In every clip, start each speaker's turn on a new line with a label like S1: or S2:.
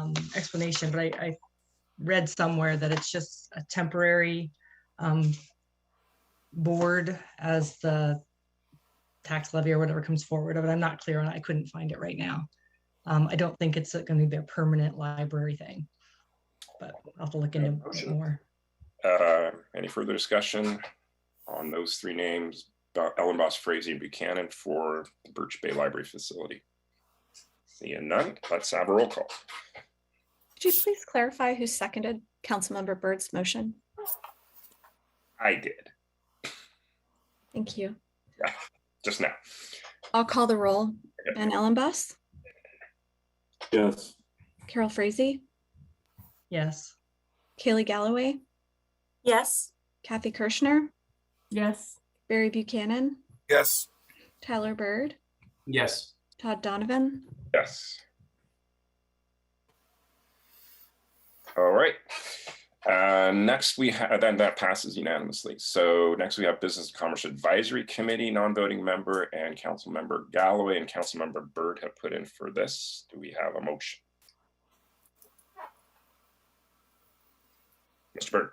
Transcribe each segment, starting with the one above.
S1: um, explanation, but I, I read somewhere that it's just a temporary um, board as the tax levy or whatever comes forward of it. I'm not clear on, it. I couldn't find it right now. Um, I don't think it's gonna be a permanent library thing. But I'll have to look into it
S2: Motion.
S1: more.
S2: Uh, Any further discussion on those three names, Bo- Ellen Boss Frazee and Buchanan for the Birch Bay Library Facility? Seeing none, let's have a roll call.
S3: Could you please clarify who seconded Councilmember Bird's motion?
S2: I did,
S3: Thank you.
S2: just now.
S3: I'll call the roll. Ben Ellenboss,
S4: Yes.
S3: Carol Frazee,
S1: Yes,
S3: Kaylee Galloway,
S5: Yes.
S3: Kathy Kirschner,
S5: Yes.
S3: Barry Buchanan,
S4: Yes.
S3: Tyler Bird,
S6: Yes,
S3: Todd Donovan.
S2: Yes. All right. Uh, Next, we have, then that passes unanimously. So next we have Business and Commerce Advisory Committee, non-voting member and council member Galloway and council member Byrd have put in for this. Do we have a motion? Mr. Byrd,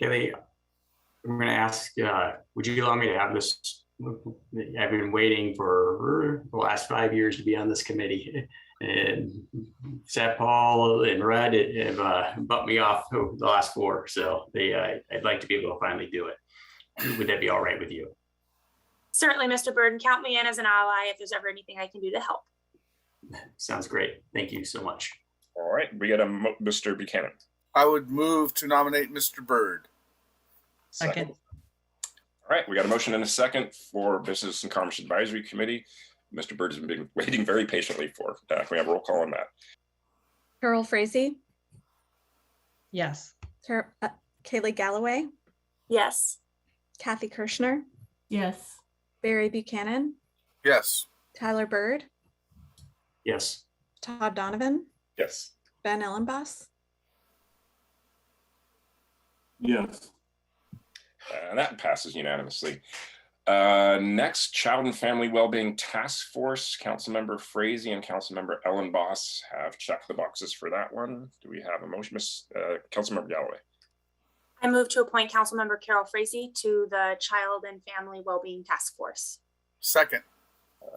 S6: Kelly, I'm gonna ask, uh, would you allow me to have this? I've been waiting for the last five years to be on this committee. And Seth Paul and Red have uh, bumped me off over the last four, so they, uh, I'd like to be able to finally do it. Would that be all right with you?
S5: Certainly, Mr. Burden, count me in as an ally if there's ever anything I can do to help.
S6: Sounds great. Thank you so much.
S2: all right, we got a, mo- Mr. Buchanan.
S4: I would move to nominate Mr. Byrd.
S1: second,
S2: All right, we got a motion and a second for Business and Commerce Advisory Committee. Mr. Byrd has been waiting very patiently for. Uh, Can we have a roll call on that?
S3: Carol Frazee,
S1: yes,
S3: Car- uh, Kaylee Galloway,
S5: Yes.
S3: Kathy Kirschner,
S7: Yes,
S3: Barry Buchanan,
S4: Yes.
S3: Tyler Bird,
S6: Yes,
S3: Todd Donovan,
S2: Yes.
S3: Ben Ellenboss,
S4: Yes.
S2: And that passes unanimously. Uh, Next, Child and Family Wellbeing Task Force, Councilmember Frazee and Councilmember Ellen Boss have checked the boxes for that one. Do we have a motion, Miss, uh, Councilmember Galloway?
S5: I move to appoint Councilmember Carol Frazee to the Child and Family Wellbeing Task Force.
S4: Second.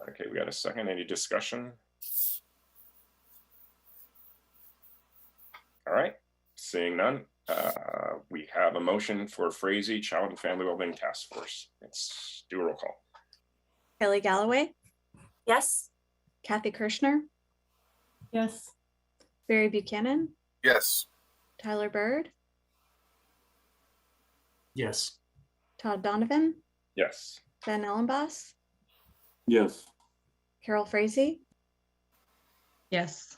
S2: Okay, we got a second. Any discussion? All right, seeing none, uh, we have a motion for Frazee Child and Family Wellbeing Task Force. Let's do a roll call.
S3: Kaylee Galloway,
S5: Yes.
S3: Kathy Kirschner,
S7: yes,
S3: Barry Buchanan,
S4: Yes.
S3: Tyler Bird,
S6: yes,
S3: Todd Donovan,
S2: Yes.
S3: Ben Ellenboss,
S4: Yes.
S3: Carol Frazee,
S1: yes,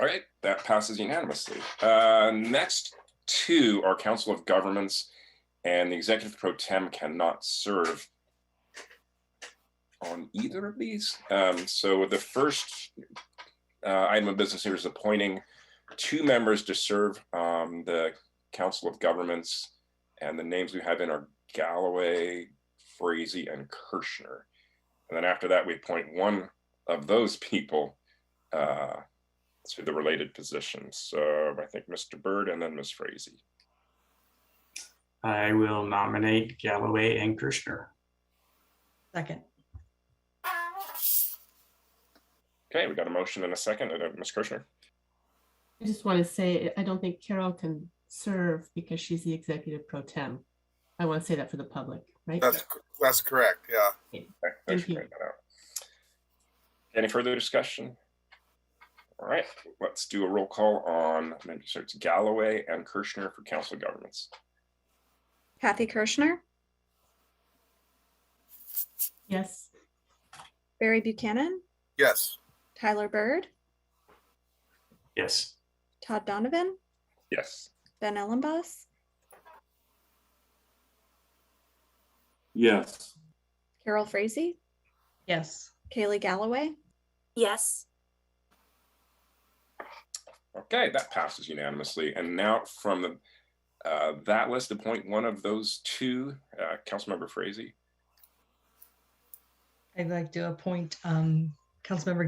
S2: All right, that passes unanimously. Uh, Next two are Council of Governments, and the Executive Pro Tem cannot serve on either of these. Um, So the first uh, item of business here is appointing two members to serve um, the Council of Governments, and the names we have in are Galloway, Frazee, and Kirschner. And then after that, we appoint one of those people uh, to the related positions. So I think Mr. Bird and then Ms. Frazee.
S6: I will nominate Galloway and Kirschner.
S1: second,
S2: Okay, we got a motion and a second. And uh, Ms. Kirshner.
S7: I just want to say, I don't think Carol can serve because she's the executive pro tem. I want to say that for the public, right?
S4: That's that's correct. Yeah.
S2: Okay, thanks for
S7: Thank you.
S2: pointing that out. Any further discussion? All right, let's do a roll call on, so it's Galloway and Kirshner for Council of Governments.
S3: Kathy Kirschner,
S7: Yes,
S3: Barry Buchanan,
S4: Yes.
S3: Tyler Bird,
S6: Yes,
S3: Todd Donovan,
S2: Yes.
S3: Ben Ellenboss,
S4: Yes.
S3: Carol Frazee,
S1: yes,
S3: Kaylee Galloway,
S5: Yes.
S2: Okay, that passes unanimously. And now from the, uh, that list, appoint one of those two, uh, Councilmember Frazee.
S1: I'd like to appoint um, Councilmember